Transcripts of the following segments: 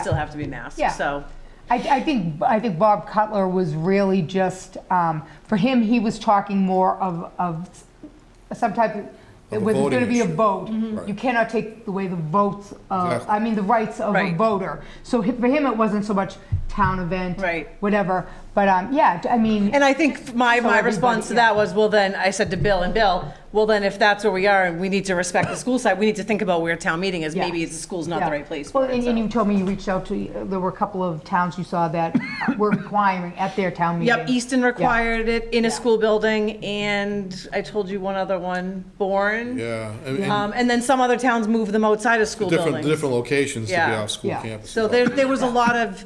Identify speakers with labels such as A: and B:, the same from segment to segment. A: still have to be masked,
B: Yeah.
A: so.
B: I, I think I think Bob Cutler was really just um, for him. He was talking more of of some type of.
C: Of a
B: where there's
C: voting
B: going to be a
C: issue.
B: vote.
A: Mm-hmm.
C: Right.
B: You cannot take away the votes of,
C: Exactly.
B: I mean, the rights of a
A: Right.
B: voter. So hi- for him, it wasn't so much town event,
A: Right.
B: whatever. But um, yeah, I mean,
A: And I think my,
B: So
A: my
B: everybody,
A: response to
B: yeah.
A: that was, well, then, I said to Bill and Bill, well, then, if that's where we are and we need to respect the school side, we need to think about where town meeting is.
B: Yeah.
A: Maybe the school's not
B: Yeah.
A: the right place
B: Well,
A: for it.
B: and and you
A: so.
B: told me you reached out to, there were a couple of towns you saw that were requiring at their town meeting.
A: Yep, Easton required it in a school building, and I told you one other one, Bourne.
C: Yeah, and- and
A: Um, And then some other towns move them outside of school
C: different,
A: buildings.
C: different locations to be
A: Yeah.
C: off school
B: Yeah.
C: campus.
A: So there, there was a lot of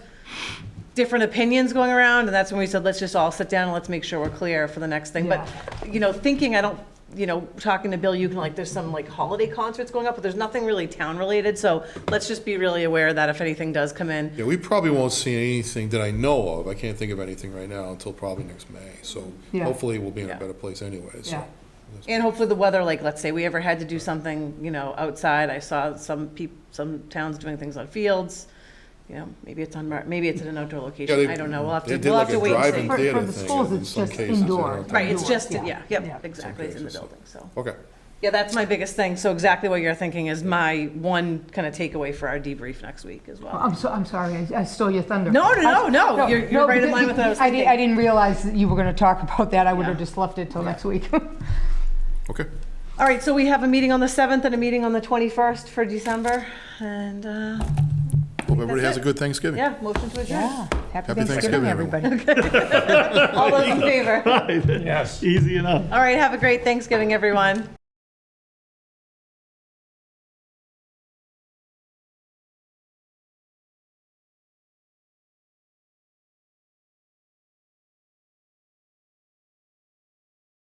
A: different opinions going around, and that's when we said, let's just all sit down and let's make sure we're clear for the next thing. But, you know, thinking, I don't, you know, talking to Bill, you can like, there's some like holiday concerts going up, but there's nothing really town-related, so let's just be really aware that if anything does come in.
C: Yeah, we probably won't see anything that I know of. I can't think of anything right now until probably next May. So
B: Yeah.
C: hopefully we'll be in a
A: Yeah.
C: better place anyway,
B: Yeah.
C: so.
A: And hopefully the weather, like, let's say we ever had to do something, you know, outside, I saw some peop, some towns doing things on fields, you know, maybe it's on, Mar- maybe it's at an outdoor
C: Yeah, they-
A: location, I don't know, we'll have
C: they
A: to,
C: did
A: we'll
C: like
A: have to
C: a
A: wait and
C: drive-in
A: see.
B: For-
C: theater
B: for the
C: thing
B: schools,
C: in
B: it's
C: some
B: just
C: cases, I don't
B: indoor.
C: think.
A: Right, it's just,
B: Yeah.
A: yeah,
B: Yeah.
A: yep, exactly, it's in the
C: cases, so.
A: building, so.
C: Okay,
A: Yeah, that's my biggest thing. So exactly what you're thinking is my one kind of takeaway for our debrief next week as well.
B: I'm so, I'm sorry, I- I stole your thunder.
A: No, no, no,
B: I-
A: no, you're- you're
B: no,
A: right in
B: because
A: line with what I was
B: di-
A: thinking.
B: I didn't realize that you were going to talk about that, I would have
A: Yeah.
B: just left it till next week.
C: okay.
A: All right, so we have a meeting on the 7th and a meeting on the 21st for December. And, uh,
C: Hope everybody has a
A: it.
C: good Thanksgiving.
A: yeah, motion to adjourn.
B: Yeah. Happy
C: Thanksgiving,
B: Thanksgiving,
C: everyone.
B: everybody.
A: All those in favor?
D: Yes. Easy enough.
A: All right, have a great Thanksgiving, everyone.